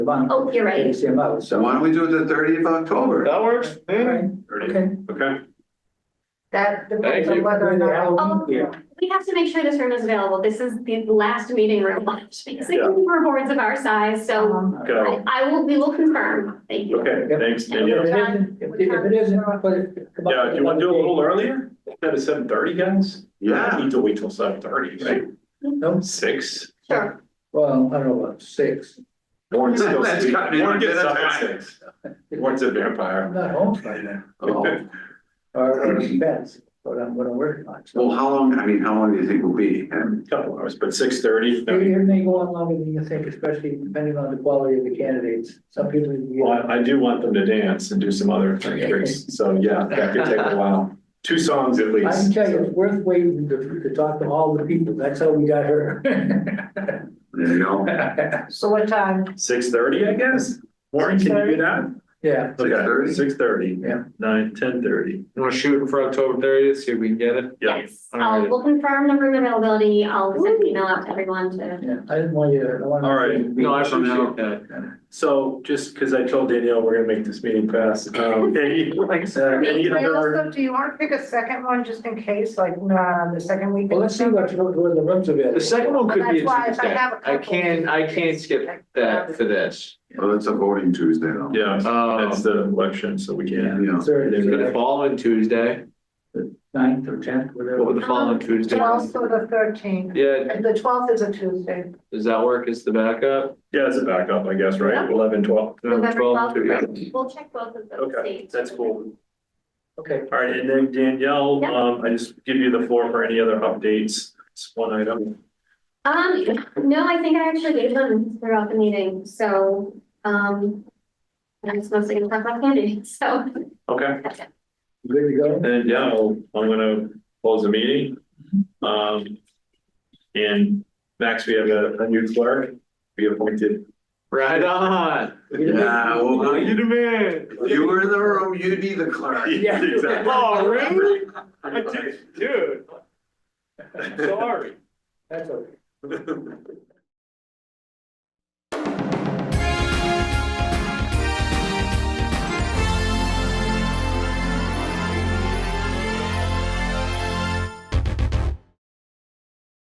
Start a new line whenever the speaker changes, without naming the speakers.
month.
Oh, you're right.
CMO,
So why
so.
don't we do it the thirtieth of October?
That works. Yeah.
Okay,
Okay.
that
Thank
depends
you.
on whether or not.
Oh,
Yeah.
we have to make sure this room is available. This is the last meeting room left, basically, for boards of our size, so
Um,
Go.
I, I will, we will confirm. Thank you.
Okay, thanks,
If it
Danielle.
isn't, if it isn't, put it. come up
Yeah,
with
do you want to do a
another
little earlier? Instead of seven thirty, guys?
Yeah,
Need to wait till seven thirty, right?
date. No,
Six?
Sure.
well, I don't know, about six.
Warren's still
That's
sleeping.
gotta be
Warren
like
gets
that
up at
time.
six. Warren's a
I'm
vampire.
not home by then,
oh,
or, or depends, what I'm, what I'm working on. So
well, how long, I mean, how long do you think will be? And
Couple hours, but six thirty.
It may go on longer than you think, especially depending on the quality of the candidates. Some people, you
Well, I I do want them to dance and do some other things, so yeah, that could take a while. Two songs at
I can
least.
tell you, it's worth waiting to, to talk to all the people. That's how we got her.
there you go.
So what time?
Six thirty, I guess? Warren, can you do that?
Yeah,
Okay,
6:30?
six thirty.
Yeah.
Nine, ten thirty.
You wanna shoot for October thirtieth, see if we can get it?
Yeah.
Yes, I'll, we'll confirm the room availability. I'll send an email out to everyone to.
yeah. I didn't want you, to- I wanted.
All right.
No, I don't know, okay.
So just because I told Danielle we're gonna make this meeting fast. um, any-
Uh,
any
Anything
other-
else? Do you want to pick a second one just in case, like, nah, the second week? in
Well, let's see what,
December?
where the rooms available.
The second one could be
That's why
a
if I
Tuesday.
have a
I
couple-
can't, I can't skip that for this.
Well, it's a voting Tuesday though.
Yeah, that's
Um,
the election, so we
Yeah.
can.
Yeah.
Thursday,
for the following Tuesday,
ninth or tenth,
what
whatever.
Uh-huh.
would the following Tuesday? be?
Twelfth or the thirteenth,
Yeah,
the twelfth is a Tuesday.
does that work as the backup?
Yeah, as a backup, I guess, right? Eleven, twelve.
November
12th,
twelfth.
yeah.
We'll check both of those
Okay,
dates.
that's cool.
Okay.
All right, and then Danielle,
Yeah.
um, I just give you the floor for any other updates. It's one item.
Um, no, I think I actually gave them throughout the meeting, so, um, I'm just mostly gonna talk about candy, so.
Okay,
that's it.
Good to go?
and yeah, I'll- I'm gonna close the meeting. Um, and Max, we have a, a new clerk. We appointed.
Right on.
Yeah, well,
You
you,
the man.
you were in the room, you'd be the clerk.
Yeah.
Exactly.
Oh, really? I did- Dude. Sorry.
That's okay.